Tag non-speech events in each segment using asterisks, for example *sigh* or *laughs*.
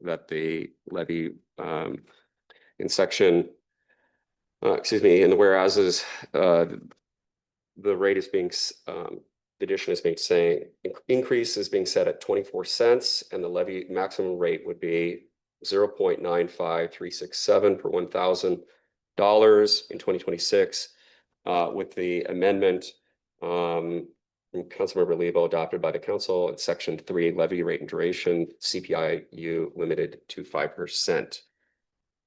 that the levy um in section uh, excuse me, in the whereases, uh, the rate is being, s- um, the addition is being saying, in- increase is being set at twenty-four cents and the levy maximum rate would be zero point nine five three six seven per one thousand dollars in twenty twenty-six. Uh, with the amendment, um, from Councilmember Lebo adopted by the council at section three levy rate and duration CPIU limited to five percent.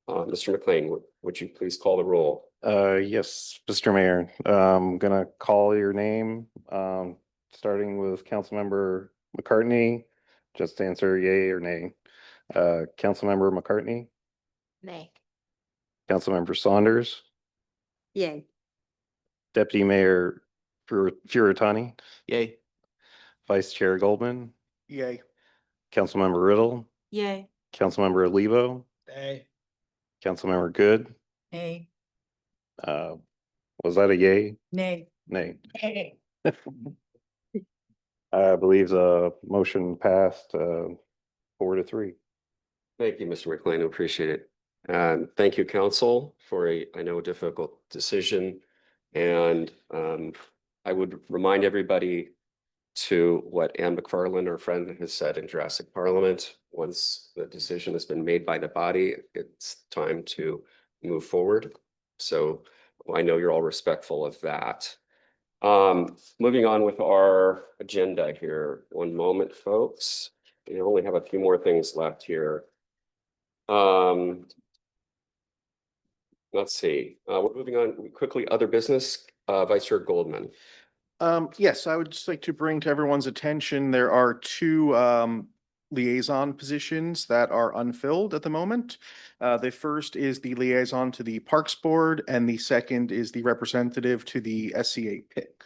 Uh, Mr. McLean, would, would you please call the roll? Uh, yes, Mr. Mayor, I'm gonna call your name, um, starting with Councilmember McCartney. Just answer yay or nay. Uh, Councilmember McCartney, Nay. Councilmember Saunders, Yay. Deputy Mayor Fur- Furutani, Yay. Vice Chair Goldman, Yay. Councilmember Riddle, Yay. Councilmember Lebo, Nay. Councilmember Good. Nay. Uh, was that a yay? Nay. Nay. *laughs* I believe the motion passed, uh, four to three. Thank you, Mr. McLean. I Appreciate it. And thank you, council, for a, I know, difficult decision. And um, I would remind everybody to what Anne McFarland, our friend, has said in Jurassic Parliament. Once the decision has been made by the body, it's time to move forward. So I know you're all respectful of that. Um, moving on with our agenda here. One moment, folks. We only have a few more things left here. Um. Let's see, uh, we're moving on quickly, other business, uh, Vice Chair Goldman. Um, yes, I would just like to bring to everyone's attention, there are two um liaison positions that are unfilled at the moment. Uh, the first is the liaison to the Parks Board and the second is the representative to the SCA PIC.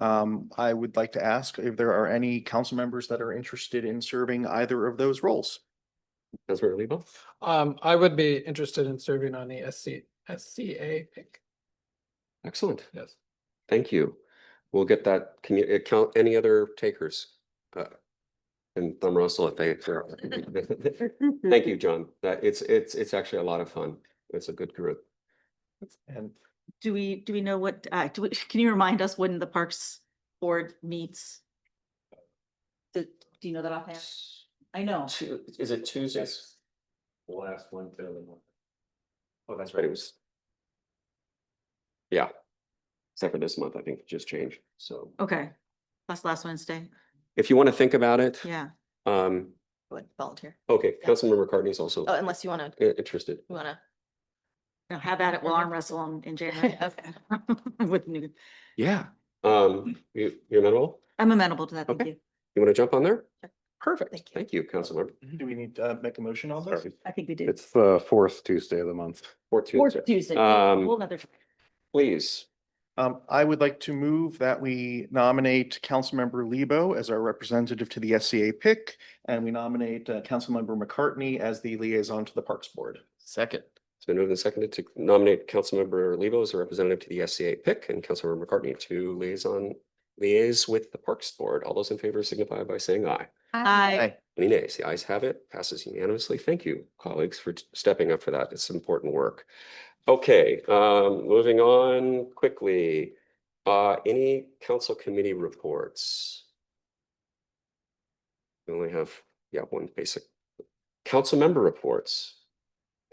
Um, I would like to ask if there are any council members that are interested in serving either of those roles. Councilmember Lebo, Um, I would be interested in serving on the SC, SCA pick, excellent, yes. thank you. We'll get that, can you count any other takers? Uh, And Thumb Russell, if they, if there are. Mm-hmm. thank you, John, that it's, it's, it's actually a lot of fun, it's a good group. And Do we, do we know what, uh, do we, *laughs* can you remind us when the Parks Board meets? Do, do you know that offhand? I know. Tu- Is it Tuesdays? Last one, Oh, that's right, it was. Yeah. Except for this month, I think it just changed, so. Okay. Last, last Wednesday. If you want to think about it. Yeah. Um, Would volunteer. okay, Yeah. Councilmember McCartney is also Oh, i- unless you wanna, interested. you wanna, Now have at it. We'll arm wrestle 'em *laughs* in January. Okay. *laughs* With new, Yeah. Um, you, you're not all, I'm amenable to that. Thank Okay. you. you want to jump on there? Sure. Perfect, Thank you. thank you, Councilmember. do we need to uh, make a motion on this? I think we did. It's the fourth Tuesday of the month. Or Or Tuesday, Tuesday. Um, Whole nother- please. Um, I would like to move that we nominate Councilmember Lebo as our representative to the SCA pick, and we nominate uh, Councilmember McCartney as the liaison to the Parks Board. Second. It's been moved and seconded to nominate Councilmember Lebo as a representative to the SCA pick and Councilmember McCartney to liaison, liaise with the Parks Board. All those in favor signify by saying aye. I, Any nays? The ayes have it. Passes unanimously. Thank you, colleagues, for t- stepping up for that. It's important work. Okay, um, moving on quickly. Uh, any council committee reports? We only have, yeah, one basic. Council member reports.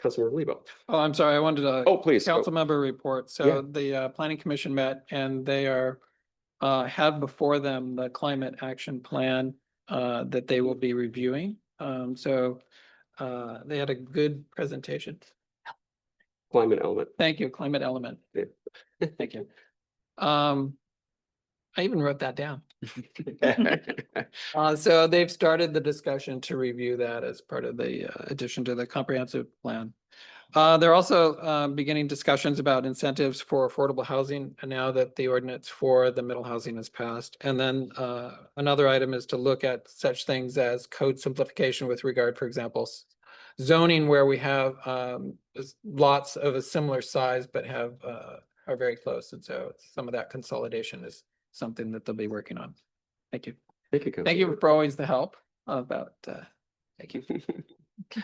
Councilmember Lebo. Oh, I'm sorry, I wanted to, Oh, please. go. council member report, so the uh planning commission met and they are. Uh, have before them the climate action plan uh that they will be reviewing, um, so. Uh, they had a good presentation, Climate element. thank you, climate element, Yeah. *laughs* thank you. Um, I even wrote that down. Uh, so they've started the discussion to review that as part of the uh, addition to the comprehensive plan. Uh, they're also, uh, beginning discussions about incentives for affordable housing and now that the ordinance for the middle housing has passed. And then, uh, another item is to look at such things as code simplification with regard, for example, s- zoning where we have, um, s- lots of a similar size but have, uh, are very close. And so some of that consolidation is something that they'll be working on. Thank you. Thank you. Thank you Councilmember. uh, for always the help about, uh, thank you.